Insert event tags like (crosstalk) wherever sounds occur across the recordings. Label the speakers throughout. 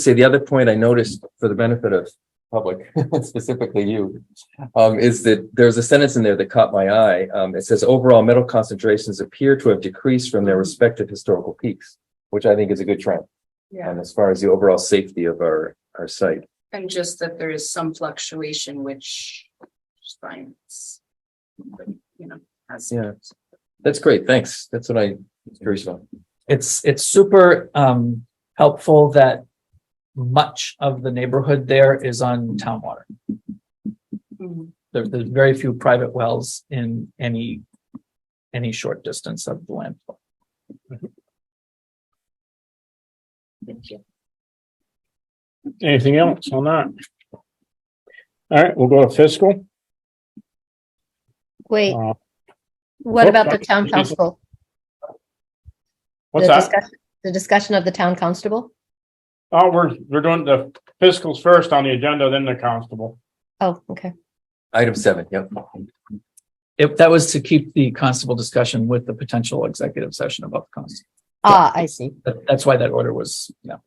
Speaker 1: say the other point I noticed for the benefit of public, (laughs) specifically you, um, is that there's a sentence in there that caught my eye. Um, it says overall metal concentrations appear to have decreased from their respective historical peaks, which I think is a good trend.
Speaker 2: Yeah,
Speaker 1: And as far as the overall safety of our, our site.
Speaker 2: and just that there is some fluctuation which science. You know, has.
Speaker 1: Yeah. That's great. Thanks. That's what I was curious about.
Speaker 3: it's it's super um helpful that much of the neighborhood there is on town water.
Speaker 2: Mhm.
Speaker 3: There, there's very few private wells in any any short distance of the landfill.
Speaker 2: Thank you.
Speaker 4: Anything else on that? All right, we'll go to fiscal.
Speaker 5: Wait,
Speaker 4: Uh,
Speaker 5: what
Speaker 4: oh,
Speaker 5: about the
Speaker 4: sorry.
Speaker 5: town
Speaker 4: Excuse me.
Speaker 5: constable?
Speaker 4: What's
Speaker 5: The
Speaker 4: that?
Speaker 5: discussion- The discussion of the town constable?
Speaker 4: Oh, we're, we're doing the fiscals first on the agenda, then the constable.
Speaker 5: Oh, okay.
Speaker 1: Item seven, yep.
Speaker 3: If that was to keep the constable discussion with the potential executive session about the constable,
Speaker 5: Ah, I see.
Speaker 3: That- that's why that order was, yeah.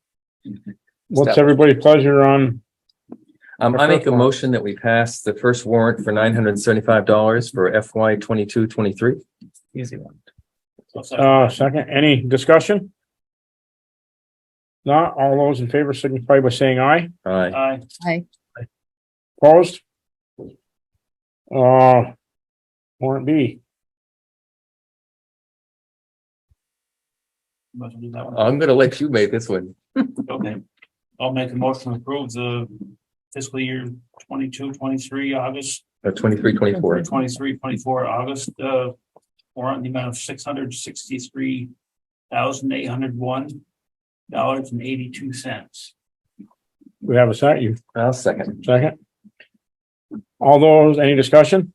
Speaker 4: What's
Speaker 3: Step.
Speaker 4: everybody's pleasure on?
Speaker 1: Um,
Speaker 4: The
Speaker 1: I make
Speaker 4: first
Speaker 1: a
Speaker 4: one.
Speaker 1: motion that we pass the first warrant for nine hundred and seventy-five dollars for FY twenty-two, twenty-three.
Speaker 3: Easy one.
Speaker 4: Uh, second, any discussion? Not all those in favor signify by saying aye.
Speaker 1: Aye.
Speaker 4: Aye.
Speaker 5: Aye.
Speaker 4: Opposed? Uh, warrant B.
Speaker 6: Motion to do that one.
Speaker 1: I'm gonna let you make this one.
Speaker 6: Okay. I'll make a motion to approve the fiscal year 22, 23, August,
Speaker 1: Uh, twenty-three, twenty-four.
Speaker 6: 23, 24, August, uh, warrant in the amount of six hundred sixty-three thousand eight hundred one dollars and eighty-two cents.
Speaker 4: We have a second, you
Speaker 1: I'll second.
Speaker 4: second? All those, any discussion?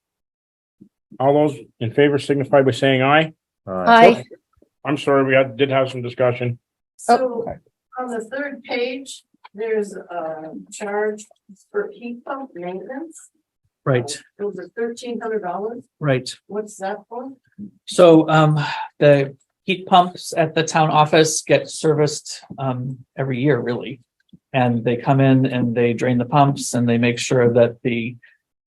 Speaker 4: All those in favor signify by saying aye.
Speaker 5: Aye.
Speaker 4: I'm sorry, we had, did have some discussion.
Speaker 2: So on the third page, there's a charge for heat pump maintenance.
Speaker 3: Right,
Speaker 2: It was thirteen hundred dollars.
Speaker 3: right.
Speaker 2: What's that for?
Speaker 3: So um the heat pumps at the town office get serviced um every year, really. And they come in and they drain the pumps and they make sure that the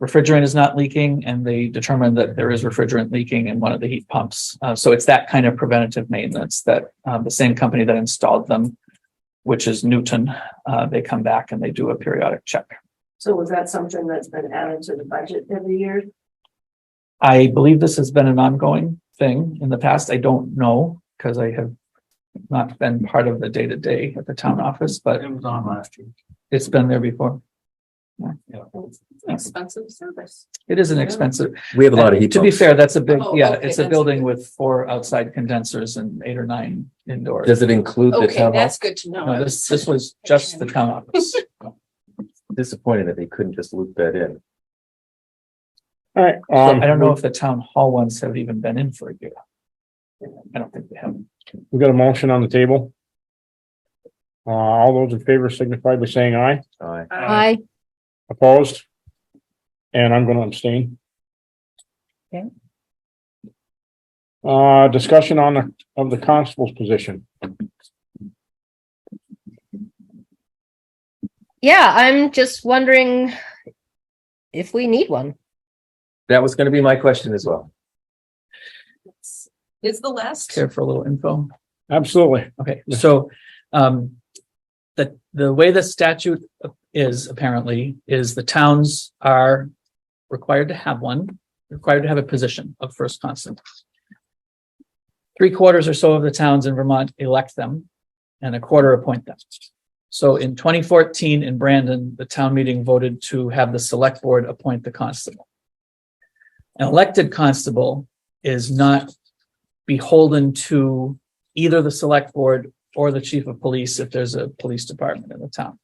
Speaker 3: refrigerant is not leaking and they determine that there is refrigerant leaking in one of the heat pumps. Uh, so it's that kind of preventative maintenance that um, the same company that installed them, which is Newton, uh, they come back and they do a periodic check.
Speaker 2: So was that something that's been added to the budget every year?
Speaker 3: I believe this has been an ongoing thing in the past. I don't know because I have not been part of the day to day at the town office, but
Speaker 6: It was on last year.
Speaker 3: it's been there before.
Speaker 2: Expensive service.
Speaker 3: It is an expensive.
Speaker 1: We have a lot of heat
Speaker 3: To be
Speaker 1: pumps.
Speaker 3: fair, that's a big,
Speaker 2: Oh,
Speaker 3: yeah,
Speaker 2: okay,
Speaker 3: it's a
Speaker 2: that's
Speaker 3: building
Speaker 2: good.
Speaker 3: with four outside condensers and eight or nine indoors.
Speaker 1: Does it include the
Speaker 2: Okay,
Speaker 1: town
Speaker 2: that's
Speaker 1: office?
Speaker 2: good to know. I
Speaker 3: No,
Speaker 2: was-
Speaker 3: this, this was just the town
Speaker 1: (laughs)
Speaker 3: office.
Speaker 1: Disappointed that they couldn't just loop that in.
Speaker 4: Alright.
Speaker 1: Um,
Speaker 3: I don't know if the town hall ones have even been in for a year. I don't think they have.
Speaker 4: We got a motion on the table. Uh, all those in favor signify by saying aye,
Speaker 1: Aye.
Speaker 2: Uh,
Speaker 5: Aye.
Speaker 4: opposed? And I'm gonna abstain.
Speaker 5: Okay.
Speaker 4: Uh, discussion on the, of the constable's position.
Speaker 5: Yeah, I'm just wondering if we need one.
Speaker 1: That was gonna be my question as well.
Speaker 2: Is the last.
Speaker 3: Care for a little info?
Speaker 4: Absolutely.
Speaker 3: Okay, so, um, the, the way the statute is apparently is the towns are required to have one, required to have a position of first constable. Three quarters or so of the towns in Vermont elect them and a quarter appoint them. So in twenty fourteen in Brandon, the town meeting voted to have the select board appoint the constable. An elected constable is not beholden to either the select board or the chief of police if there's a police department in the town.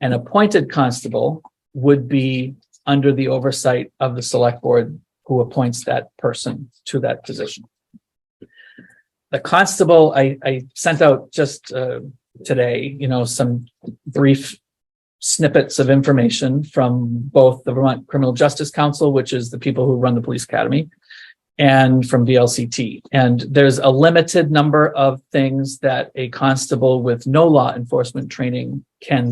Speaker 3: An appointed constable would be under the oversight of the select board who appoints that person to that position. The constable, I, I sent out just, uh, today, you know, some brief snippets of information from both the Vermont Criminal Justice Council, which is the people who run the police academy, and from VLCT. And there's a limited number of things that a constable with no law enforcement training can